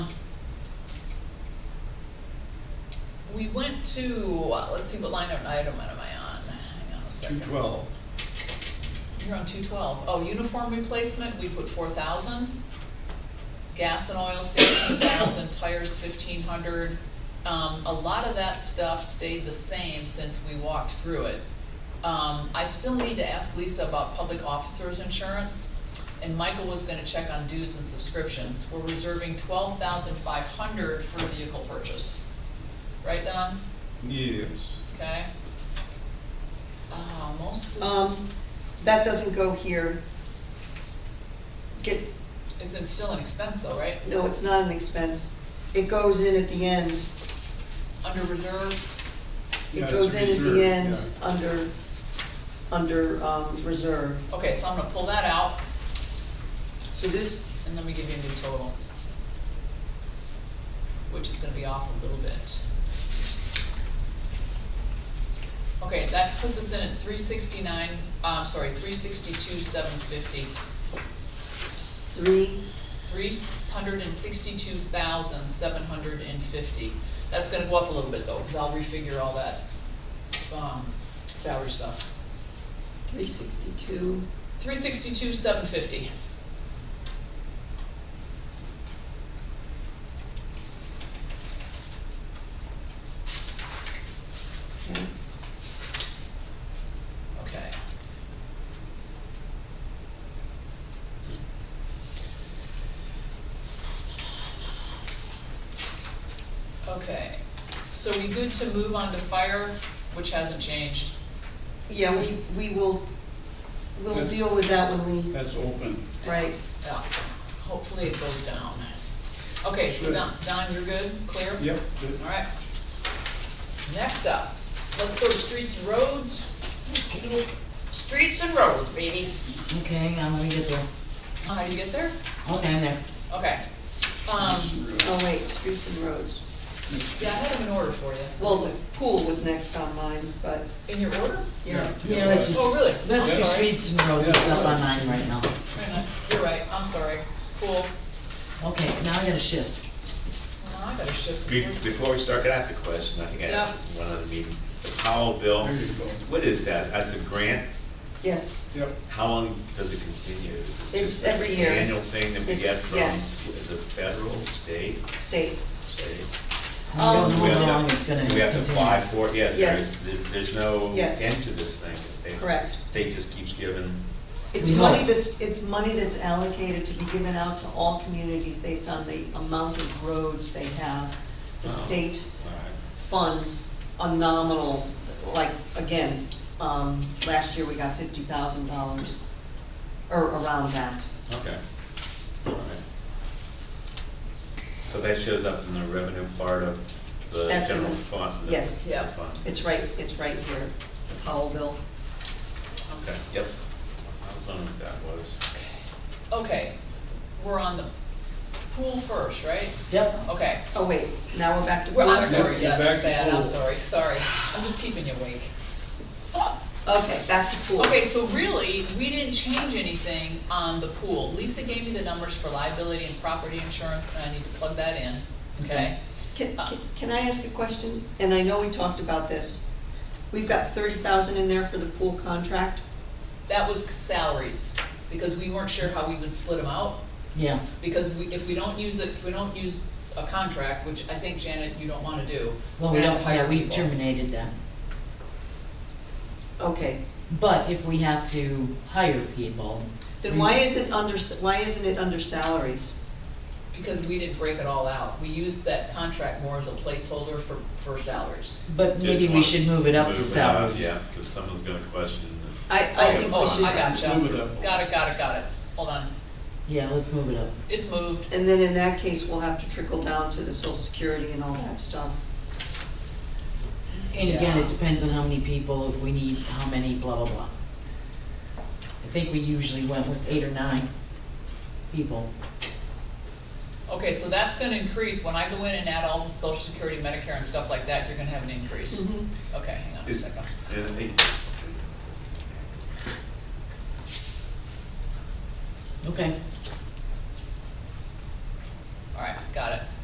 we went to, uh, let's see, what line item, item am I on? Hang on a two second. twelve. You're on two twelve. Oh, uniform replacement, we put four thousand. Gas and oil, sixteen thousand, tires fifteen hundred. Um, a lot of that stuff stayed the same since we walked through it. Um, I still need to ask Lisa about public officers insurance, and Michael was gonna check on dues and subscriptions. We're reserving twelve thousand five hundred for vehicle purchase. Right, Don? Yes. Okay? Uh, most of. Um, that doesn't go here. Get, It's it's still an expense though, right? no, it's not an expense. It goes in at the end. Under reserve, Yeah, It it's goes in at reserved, the end yeah. under, under, um, reserve. okay, so I'm gonna pull that out, So this, and let me give you a new total. Which is gonna be off a little bit. Okay, that puts us in at three sixty-nine, um, sorry, three sixty-two, seven fifty. three, Three hundred and sixty-two thousand, seven hundred and fifty. That's gonna go up a little bit though, cause I'll refigure all that, um, salary stuff. three sixty-two, Three sixty-two, seven fifty. okay. Okay. Okay, so we good to move on to fire, which hasn't changed? Yeah, we, we will, we'll That's- deal with that when we, That's open. right. Yeah, hopefully it goes down. Okay, so Good. Don, Don, you're good, clear? Yep. Alright. Next up, let's go to streets and roads. Streets and roads, baby. Oh, Okay, hang on, let me get there. How do you get there? Okay, I'm there. Okay. Um, Oh, wait, streets and roads. yeah, I had them in order for you. Well, the pool was next on mine, but, In your order? yeah. Yeah, let's just. Oh, really? Let's I'm sorry. do streets and roads, it's up on nine right now. Wait a minute. You're right, I'm sorry. Cool. Okay, now I gotta shift. Well, I gotta shift. Be- this one. Before we start, can I ask a question? I think I asked one other meeting. The Powell bill, There you Hmm. go. what is that? That's a grant? Yes, Yep, How long does it continue? Is it It's just like every an year. Annual thing that we It's- get from, yes. is it federal, state, state. state? I don't Um, know Do we have how to- long it's gonna Do we continue. have to apply for it? Yes, Yes. there's, there's no Yes. end to this thing. They- Correct. State just keeps giving, It's We money hope. that's, it's money that's allocated to be given out to all communities based on the amount of roads they have. The Oh. state all right, funds a nominal, like, again, um, last year we got fifty thousand dollars, or around that. okay, all right. So that shows up in the revenue part of the That's in general the- fund? the- yes. the Yeah. fund. It's right, it's right here, the Powell bill. Okay, yep. I was on what that was. Okay, we're on the pool first, right? Yep. Okay. Oh, wait, now we're back to. Well, I'm pool. sorry, You're yes, back to Dad, I'm pool. sorry, sorry. I'm just keeping you awake. Okay, back to pool. Oh, Okay, so really, we didn't change anything on the pool. Lisa gave me the numbers for liability and property insurance, and I need to plug that in, okay? Can, can- can I ask a question? And I know we talked about this. We've got thirty thousand in there for the pool contract. That was salaries, because we weren't sure how we would split them out. Yeah, Because we, if we don't use it, if we don't use a contract, which I think Janet, you don't wanna do. well, we have don't, to hire yeah, we people. terminated them. Okay, But if we have to hire people, Then why is it under, why isn't it under salaries? Because we didn't break it all out. We used that contract more as a placeholder for, for salaries. but Just maybe we want should move it up to Move salaries. Yeah, because someone's gonna question. I, I think we Oh, I should, gotcha. Move it up. Got it, got it, got it. Hold on. Yeah, let's move it up. It's moved. and then in that case, we'll have to trickle down to the social security and all that stuff. And again, Yeah. it depends on how many people, if we need how many, blah, blah, blah. I think we usually went with eight or nine people. Okay, so that's gonna increase, when I go in and add all the social security, Medicare and stuff like that, you're gonna have an increase. Okay, hang on a Is- second. and I think- Okay,